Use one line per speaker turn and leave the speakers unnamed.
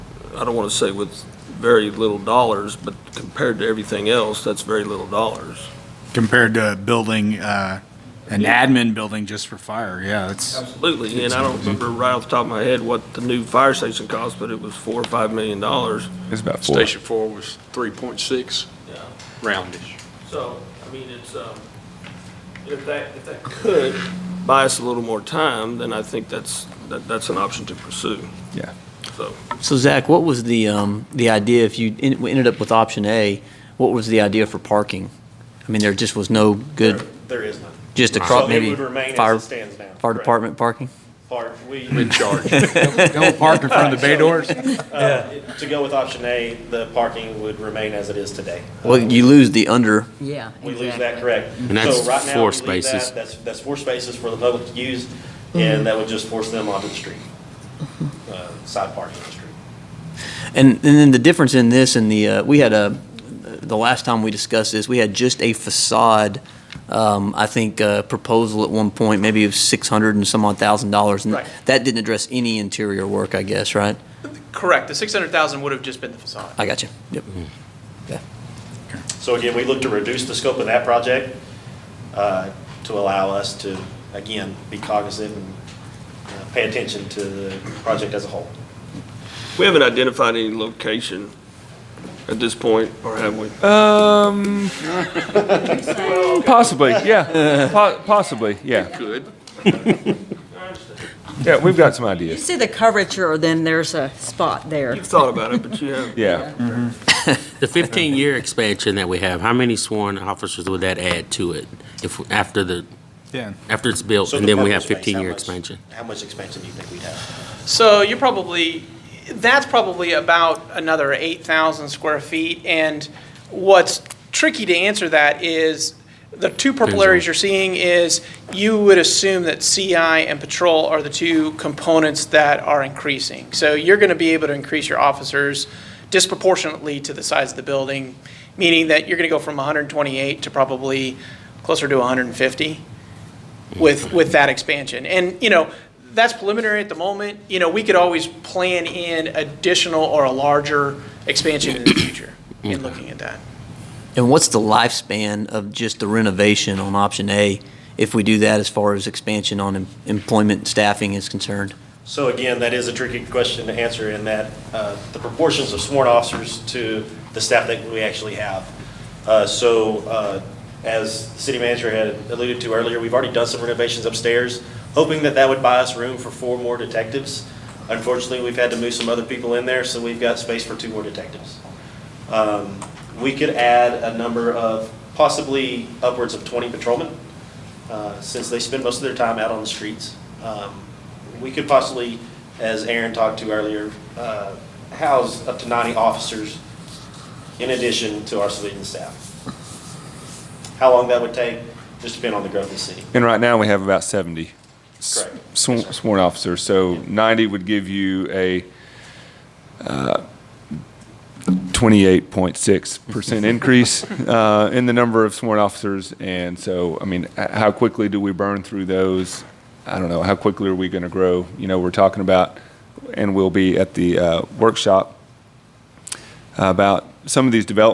I don't want to say with very little dollars, but compared to everything else, that's very little dollars.
compared to building, uh, an admin building just for fire, yeah, it's,
Absolutely, and I don't remember right off the top of my head what the new fire station cost, but it was four or five million dollars.
It's about four.
Station four was three point six,
Yeah.
roundish.
So, I mean, it's, um, if that, if that could buy us a little more time, then I think that's, that, that's an option to pursue.
Yeah.
So,
So Zach, what was the, um, the idea, if you en- ended up with option A, what was the idea for parking? I mean, there just was no good,
There is none.
just
So
across,
it
maybe
would remain
fire,
as it stands now.
fire
Correct.
department parking?
Part, we, uh,
Don't park in front of the bay doors.
to go with option A, the parking would remain as it is today. Um,
Well, you lose the under,
Yeah,
We lose
exactly.
that, correct?
And that's
So right now,
four
we leave that,
spaces.
That's, that's four spaces for the public to use,
Mm-hmm.
and that would just force them onto the street, uh, side parking on the street.
And, and then the difference in this and the, uh, we had a, the last time we discussed this, we had just a facade, um, I think, uh, proposal at one point, maybe of six hundred and some odd thousand dollars. and
Right.
That didn't address any interior work, I guess, right?
Correct. The 600,000 would have just been the facade.
I got you. Yep.
So again, we look to reduce the scope of that project uh, to allow us to, again, be cognizant and uh, pay attention to the project as a whole.
we haven't identified any location at this point, or have we?
Um, possibly, yeah, Po- possibly, yeah.
Good.
Yeah, we've got some
You
ideas,
see the curvature, then there's a spot there.
You've thought about it, but you haven't.
yeah.
The 15-year expansion that we have, how many sworn officers would that add to it if, after the,
yeah.
after it's built,
So the
and then we
parking
have
space, how
15-year
much-
expansion?
How much expansion do you think we'd have?
So you're probably, that's probably about another 8,000 square feet. And what's tricky to answer that is, the two purple
Depends on-
areas you're seeing is, you would assume that CI and patrol are the two components that are increasing. So you're going to be able to increase your officers disproportionately to the size of the building, meaning that you're going to go from 128 to probably closer to 150. with, with that expansion. And, you know, that's preliminary at the moment. You know, we could always plan in additional or a larger expansion in the future in looking at that.
And what's the lifespan of just the renovation on option A if we do that as far as expansion on em- employment and staffing is concerned?
So again, that is a tricky question to answer in that uh, the proportions of sworn officers to the staff that we actually have. Uh, So uh, as the city manager had alluded to earlier, we've already done some renovations upstairs, hoping that that would buy us room for four more detectives. Unfortunately, we've had to move some other people in there, so we've got space for two more detectives. Um, We could add a number of possibly upwards of 20 patrolmen uh, since they spend most of their time out on the streets. Um, We could possibly, as Aaron talked to earlier, uh, house up to 90 officers in addition to our civilian staff. How long that would take, just depend on the growth of the city.
And right now, we have about 70 s-
Correct.
sw- sworn officers, so 90 would give you a uh, 28.6% increase uh, in the number of sworn officers, and so, I mean, h- how quickly do we burn through those? I don't know, how quickly are we going to grow? You know, we're talking about, and we'll be at the uh, workshop about some of these developments